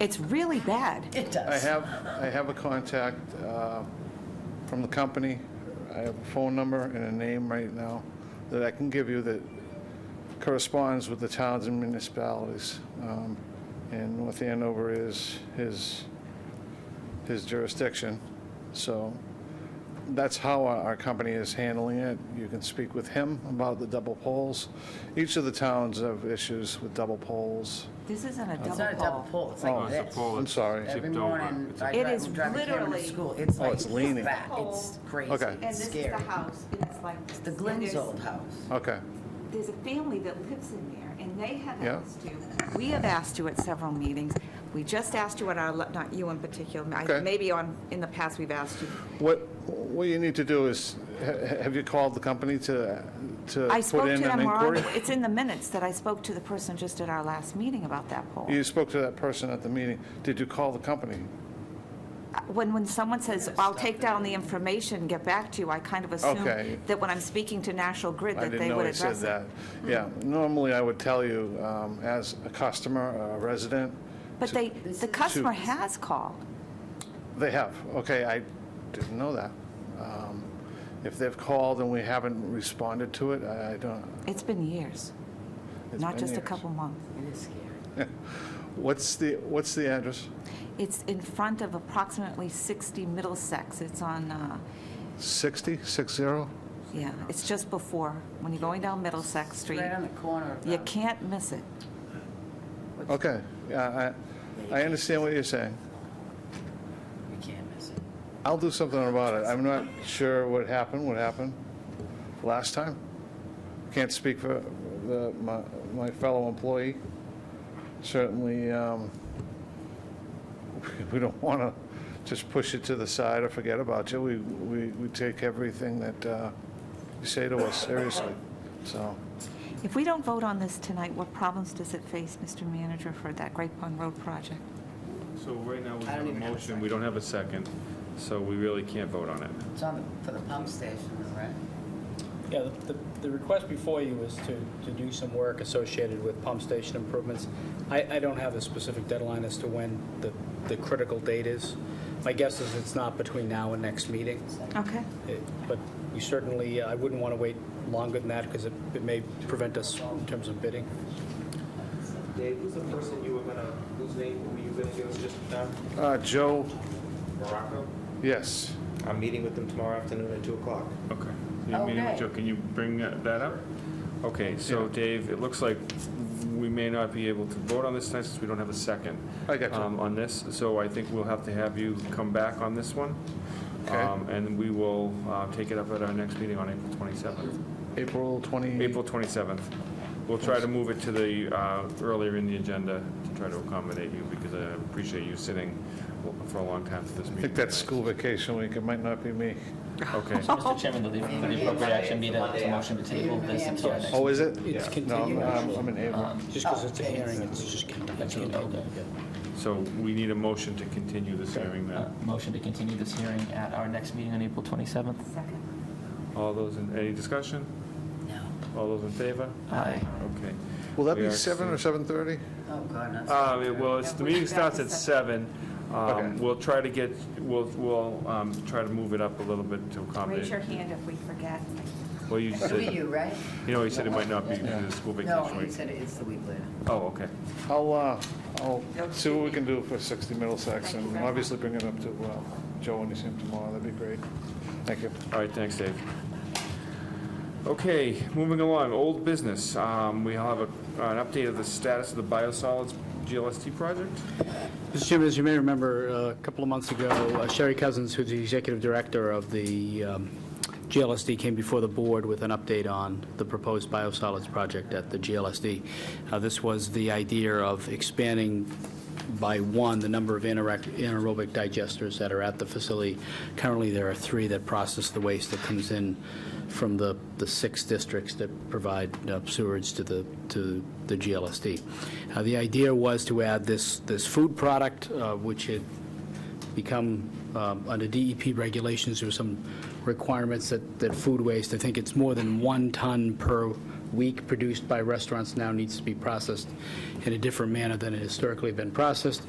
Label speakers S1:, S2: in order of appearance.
S1: It's really bad.
S2: It
S3: I
S2: does.
S3: have, I have a contact uh, from the company. I have a phone number and a name right now that I can give you that corresponds with the towns and municipalities. Um, And North Andover is his, his jurisdiction. So that's how our our company is handling it. You can speak with him about the double poles. Each of the towns have issues with double poles.
S1: This isn't a
S2: It's not a double
S1: double pole.
S2: pole, it's
S3: Oh,
S2: like
S3: it's a
S2: this.
S3: I'm sorry.
S2: Every
S4: tipped over.
S2: morning,
S4: It's a-
S2: I
S1: It
S2: drive,
S1: is
S2: I'm driving Cameron
S1: literally-
S2: to school, it's like
S3: Oh, it's leaning.
S2: that, it's crazy,
S3: Okay.
S1: And
S2: it's
S1: this is
S2: scary.
S1: the house, and it's like.
S2: The
S1: and
S2: Glenn's
S1: there's-
S2: old house.
S3: Okay,
S1: There's a family that lives in there, and they have
S3: Yeah.
S1: asked you, we have asked you at several meetings, we just asked you at our, le- not you in particular, I-
S3: Okay.
S1: maybe on, in the past we've asked you.
S3: What, what you need to do is, ha- have you called the company to,
S1: I
S3: to Uh, put
S1: spoke to
S3: in an
S1: them, Ron,
S3: inquiry?
S1: it's in the minutes that I spoke to the person just at our last meeting about that pole.
S3: You spoke to that person at the meeting. Did you call the company?
S1: Uh, When, when someone says, I'll take down the information, get back to you, I kind of
S3: Okay.
S1: assume that when I'm speaking to National Grid,
S3: I
S1: that
S3: didn't
S1: they
S3: know
S1: would
S3: he said
S1: address it. Hmm.
S3: that. Yeah, normally I would tell you, um, as a customer, or a resident.
S1: But
S3: to-
S1: they, the customer has called.
S3: They have, okay, I didn't know that. Um, If they've called and we haven't responded to it, I I don't.
S1: It's been years,
S3: it's
S1: not
S3: been
S1: just a
S3: years.
S1: couple months.
S2: It is scary.
S3: What's the, what's the address?
S1: It's in front of approximately 60 Middlesex. It's on, uh,
S3: 60, 60?
S1: yeah, it's just before, when you're going down Middlesex
S2: It's
S1: Street.
S2: right on the corner of.
S1: You
S2: um,
S1: can't miss it.
S3: Okay, yeah, I, I understand what you're saying.
S2: You can't miss it.
S3: I'll do something about it. I'm not sure what happened, what happened last time. Can't speak for the, my, my fellow employee. Certainly, um, we don't want to just push it to the side or forget about you. We, we, we take everything that, uh, you say to us seriously, so.
S1: If we don't vote on this tonight, what problems does it face, Mr. Manager, for that Great Pond Road project?
S4: So right now, we
S2: I don't
S4: have a
S2: even have a
S4: motion, we don't have a second, so we really can't vote on it.
S2: It's on the, for the pump station, right?
S5: Yeah, the, the- the request before you is to, to do some work associated with pump station improvements. I, I don't have a specific deadline as to when the, the critical date is. My guess is it's not between now and next meeting,
S1: Okay.
S5: It- but you certainly, uh, I wouldn't want to wait longer than that because it, it may prevent us in terms of bidding.
S6: Dave, who's the person you were gonna, whose name were you gonna give us just now?
S3: Uh, Joe,
S6: Morocco?
S3: yes.
S6: I'm meeting with them tomorrow afternoon at two o'clock.
S4: Okay. You meeting with
S2: Okay.
S4: Joe, can you bring that that up? Okay, so Dave, it looks like we may not be able to vote on this tonight since we don't have a second.
S3: I got you.
S4: um, On this, so I think we'll have to have you come back on this one.
S3: Okay.
S4: Um, And we will uh, take it up at our next meeting on April 27th.
S3: April 20.
S4: April 27th. We'll try to move it to the, uh, earlier in the agenda to try to accommodate you because I appreciate you sitting for a long time for this meeting.
S3: I think that's school vacation week. It might not be me.
S4: Okay.
S7: Mr. Chairman, the the appropriate action be to to motion to table this until our next.
S3: Oh, is it? Um,
S5: It's
S3: No,
S5: continued,
S3: I'm I'm in April.
S5: just because it's a hearing, it's just
S7: Actually,
S5: continued.
S7: okay.
S4: So we need a motion to continue this hearing
S7: Uh,
S4: then.
S7: Motion to continue this hearing at our next meeting on April 27th.
S1: Second.
S4: All those, in any discussion? No. All those in favor?
S7: Aye.
S4: Okay.
S3: Will that
S4: We
S3: be
S4: are
S3: 7 or
S4: seeing-
S3: 7:30?
S2: Oh, God, that's.
S4: Uh, it- well, it's, the meeting starts at seven.
S3: Okay.
S4: Um, we'll try to get, we'll, we'll, um, try to move it up a little bit to
S1: Raise
S4: accommodate.
S1: your hand if we forget.
S4: Well, you
S2: It'll be
S4: said, you
S2: you, right?
S4: know, you said it might not be because of the school
S2: No,
S4: vacation
S2: he
S4: week.
S2: said it's the week later.
S4: Oh, okay.
S3: I'll, uh, I'll see what we can do for 60 Middlesex, and obviously bring it up to uh, Joe when you see him tomorrow, that'd be great. Thank you.
S4: All right, thanks, Dave. Okay, moving along, old business. Um, We have a- an update of the status of the biosolids GLST project.
S5: Mr. Chairman, as you may remember, uh, a couple of months ago, uh, Sherry Cousins, who's the executive director of the um, GLSD, came before the board with an update on the proposed biosolids project at the GLSD. Uh, This was the idea of expanding by one the number of anaerac- anaerobic digesters that are at the facility. Currently, there are three that process the waste that comes in from the, the six districts that provide uh, sewerage to the, to the GLSD. Uh, The idea was to add this, this food product, uh, which had become, um, under DEP regulations, there were some requirements that, that food waste, I think it's more than one ton per week produced by restaurants now needs to be processed in a different manner than it historically been processed.